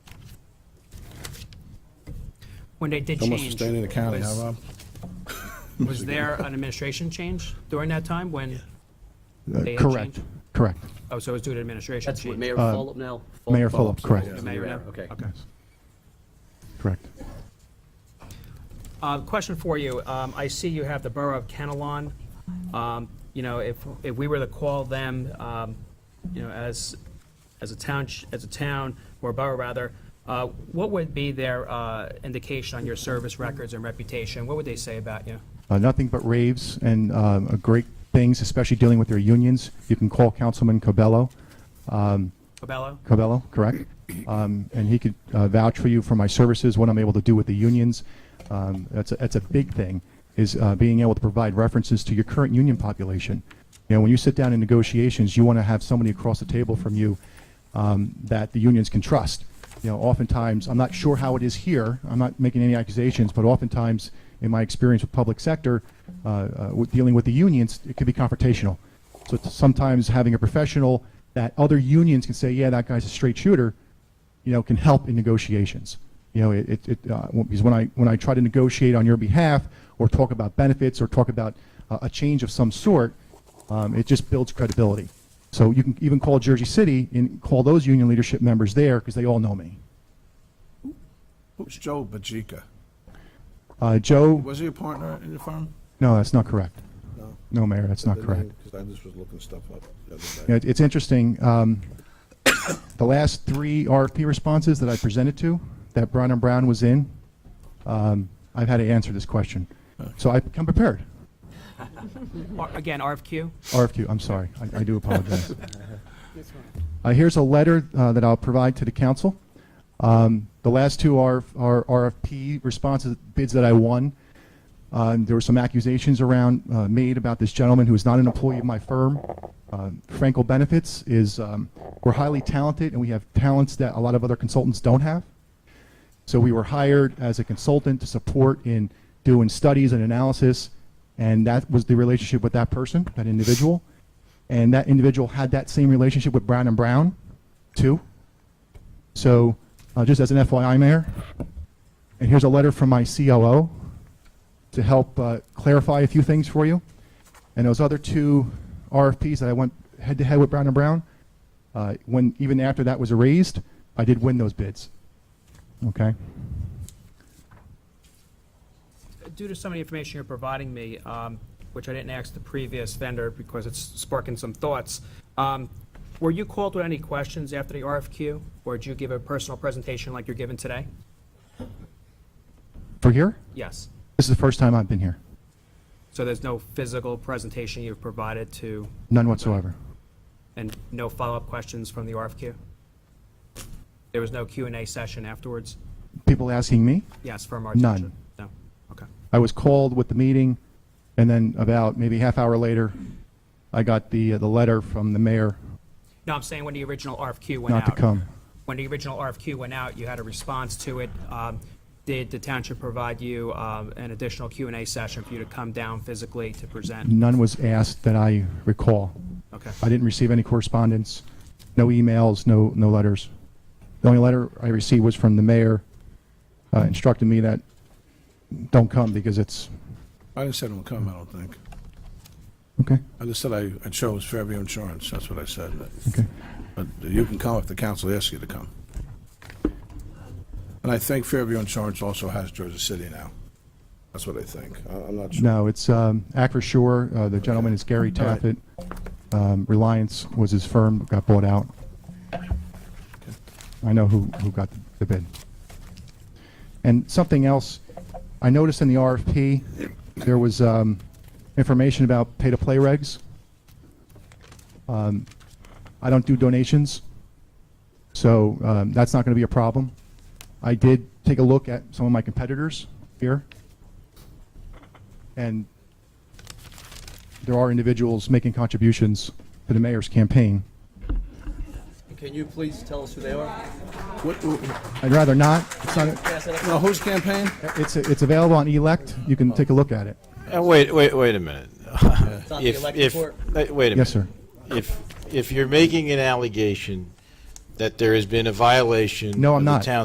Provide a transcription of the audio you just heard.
when they did Almost a change. state of the county, huh, was- Rob? Was there an administration change during that time when? Uh, They had Correct, changed? correct. Oh, so it was due to administration That's what change. Mayor Fulop now? Fulop- Uh, Mayor Fulop, Fulop's correct. the The mayor mayor, now? Okay. Yes. Correct. Uh, Question for you. Um, I see you have the Borough of Kenalon. Um, You know, if, if we were to call them, um, you know, as, as a town, as a town, or borough rather, uh, what would be their uh, indication on your service records and reputation? What would they say about you? Uh, Nothing but raves and um, uh, great things, especially dealing with their unions. You can call Councilman Cabello, Cobello? Cabello, correct? Um, And he could uh, vouch for you for my services, what I'm able to do with the unions. Um, That's, a- that's a big thing, is uh, being able to provide references to your current union population. You know, when you sit down in negotiations, you want to have somebody across the table from you um, that the unions can trust. You know, oftentimes, I'm not sure how it is here, I'm not making any accusations, but oftentimes, in my experience with public sector, uh, uh, with dealing with the unions, it can be confrontational. So it's sometimes having a professional that other unions can say, yeah, that guy's a straight shooter, you know, can help in negotiations. You know, it, it- it, uh, when- because when I, when I try to negotiate on your behalf, or talk about benefits, or talk about uh, a change of some sort, um, it just builds credibility. So you can even call Jersey City and call those union leadership members there, because they all know me. Who's Joe Bajica? Uh, Joe, Was he a partner in the firm? no, that's not correct. No. No, Mayor, that's not correct. Because I just was looking stuff up the other You know, day. it- it's interesting, um, the last three RFP responses that I presented to, that Brown and Brown was in, um, I've had to answer this question. So I've come prepared. Or- Again, RFQ? RFQ, I'm sorry, I, I do apologize. Uh, here's a letter, uh, that I'll provide to the council. Um, the last two are, are RFP responses, bids that I won. Uh, there were some accusations around, uh, made about this gentleman who is not an employee of my firm. Um, Frankel Benefits is, um, we're highly talented and we have talents that a lot of other consultants don't have. So we were hired as a consultant to support in doing studies and analysis, and that was the relationship with that person, that individual. And that individual had that same relationship with Brown and Brown, too. So, uh, just as an FYI, Mayor, and here's a letter from my COO to help uh, clarify a few things for you. And those other two RFPs that I went head to head with Brown and Brown, uh, when even after that was erased, I did win those bids. Okay. Due to some of the information you're providing me, um, which I didn't ask the previous vendor because it's sparking some thoughts, um, were you called with any questions after the RFQ? Or did you give a personal presentation like you're giving today? For here? Yes. This is the first time I've been here. So there's no physical presentation you've provided to, None whatsoever. and no follow-up questions from the RFQ? There was no Q and A session afterwards? People asking me. Yes, from our None. attention? No, okay. I was called with the meeting, and then about maybe half hour later, I got the, the letter from the mayor No, I'm saying when the original RFQ went out. not to come. When the original RFQ went out, you had a response to it. Um, Did the township provide you um, an additional Q and A session for you to come down physically to present? None was asked that I recall. Okay. I didn't receive any correspondence, no emails, no, no letters. The only letter I received was from the mayor, uh, instructing me that don't come because it's, I didn't say don't come, I don't think. okay, I just said I, I chose Fairview Insurance, that's what I said. okay. But you can come if the council asks you to come. And I think Fairview Insurance also has Jersey City now. That's what I think. I- I'm not sure. No, it's um, Act for Sure. Uh, The gentleman is Gary All right. Taffet. Um, Reliance was his firm, got bought out. I know who, who got the bid. And something else, I noticed in the RFP, there was um, information about pay-to-play regs. Um, I don't do donations, so um, that's not going to be a problem. I did take a look at some of my competitors here, and there are individuals making contributions to the mayor's campaign. Can you please tell us who they are? What, wh- I'd rather not. It's not. Pass it up. now, whose campaign? It's it's available on E elect. You can take a look at it. Uh, Wait, wait, wait a minute. It's not the If, elected if, court. uh, wait a minute. Yes, sir. If, if you're making an allegation that there has been a violation No, I'm of the not. town